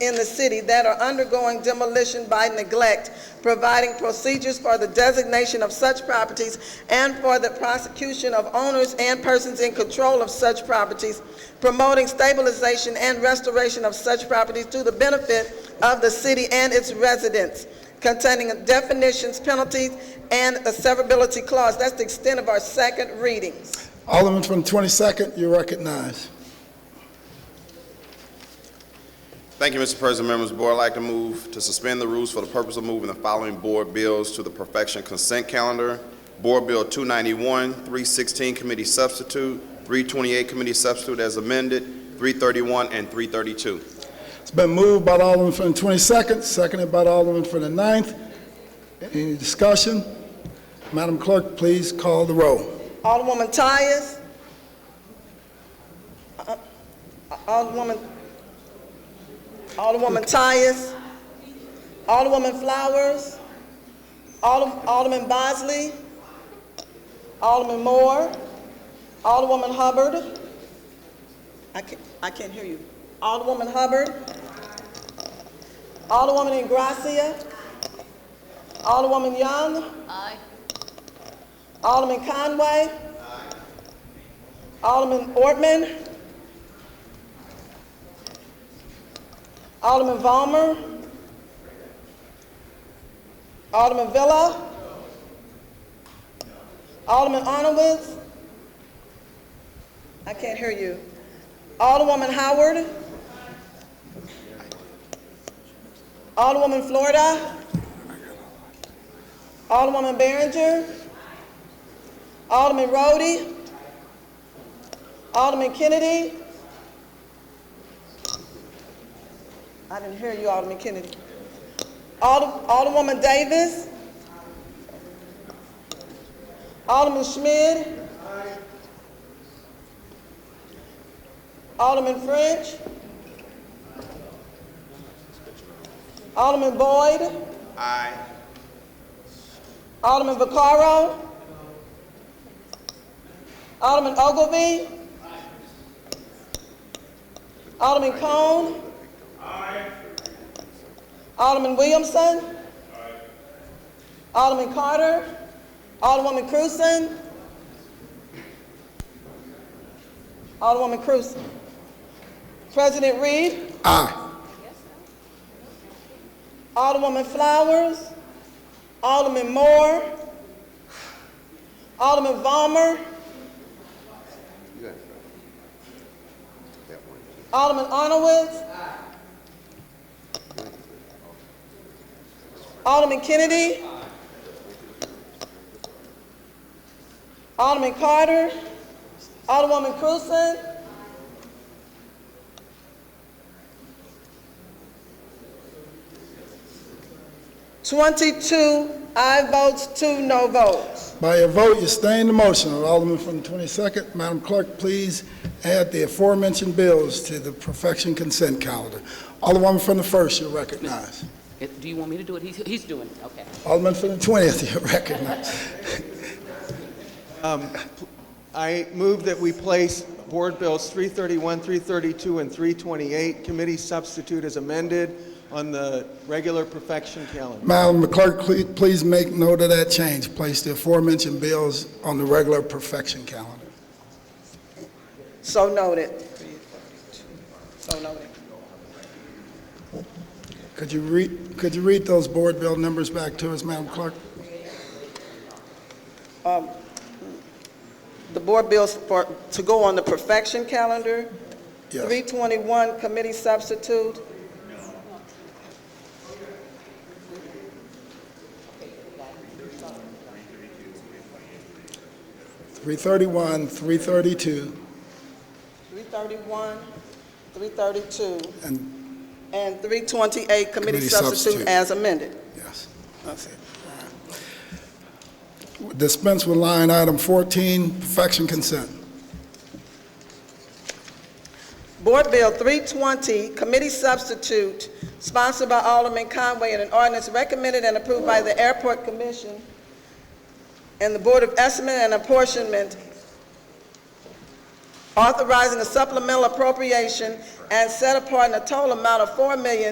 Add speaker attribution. Speaker 1: in the city that are undergoing demolition by neglect, providing procedures for the designation of such properties and for the prosecution of owners and persons in control of such properties, promoting stabilization and restoration of such properties to the benefit of the city and its residents, containing definitions, penalties, and a severability clause. That's the extent of our second readings.
Speaker 2: Alderman from 22nd, you recognize.
Speaker 3: Thank you, Mr. President, members of the board. I'd like to move to suspend the rules for the purpose of moving the following board bills to the perfection consent calendar. Board Bill 291, 316 committee substitute, 328 committee substitute as amended, 331 and 332.
Speaker 2: It's been moved by the Alderman from the 22nd, seconded by the Alderman from the 9th. Any discussion? Madam Clerk, please call the roll.
Speaker 1: Alderwoman Tyus. Uh, Alderwoman, Alderwoman Tyus. Alderwoman Flowers. Alder- Alderman Bosley. Alderman Moore. Alderwoman Hubbard. I can't, I can't hear you. Alderwoman Hubbard. Alderwoman Ingracia. Alderwoman Young. Alderman Conway. Alderman Ortman. Alderman Vollmer. Alderman Villa. Alderman Honowitz. I can't hear you. Alderwoman Howard. Alderwoman Florida. Alderwoman Behringer. Alderman Rhodey. Alderman Kennedy. I didn't hear you, Alderman Kennedy. Alder- Alderwoman Davis. Alderman Schmidt. Alderman French. Alderman Boyd. Aye. Alderman Vaccaro. Alderman Ogilvy. Alderman Cone. Alderman Williamson. Alderman Carter. Alderwoman Cruzen. Alderwoman Cruzen. President Reed.
Speaker 2: Aye.
Speaker 1: Alderwoman Flowers. Alderman Moore. Alderman Vollmer. Alderman Honowitz. Alderman Kennedy. Alderman Carter. Alderwoman Cruzen. Twenty-two aye votes, two no votes.
Speaker 2: By your vote, you stay in the motion. Alderman from the 22nd, Madam Clerk, please add the aforementioned bills to the perfection consent calendar. Alderman from the 1st, you recognize.
Speaker 4: It- Do you want me to do it? He's, he's doing it, okay.
Speaker 2: Alderman from the 20th, you recognize.
Speaker 5: I move that we place Board Bills 331, 332, and 328, committee substitute as amended, on the regular perfection calendar.
Speaker 2: Madam Clerk, cle- please make note of that change. Place the aforementioned bills on the regular perfection calendar.
Speaker 1: So noted. So noted.
Speaker 2: Could you read, could you read those board bill numbers back to us, Madam Clerk?
Speaker 1: The board bills for, to go on the perfection calendar.
Speaker 2: Yes.
Speaker 1: 321, committee substitute.
Speaker 2: Three thirty-one, three thirty-two,
Speaker 1: 331, 332,
Speaker 2: and,
Speaker 1: and 328, committee
Speaker 2: Committee
Speaker 1: substitute
Speaker 2: substitute.
Speaker 1: as amended.
Speaker 2: yes. That's it. All right. Dispense with line item fourteen, perfection consent.
Speaker 1: Board Bill 320, committee substitute, sponsored by Alderman Conway, and an ordinance recommended and approved by the Airport Commission and the Board of Estimate and Apportionment, authorizing a supplemental appropriation and set apart in a total amount of four million.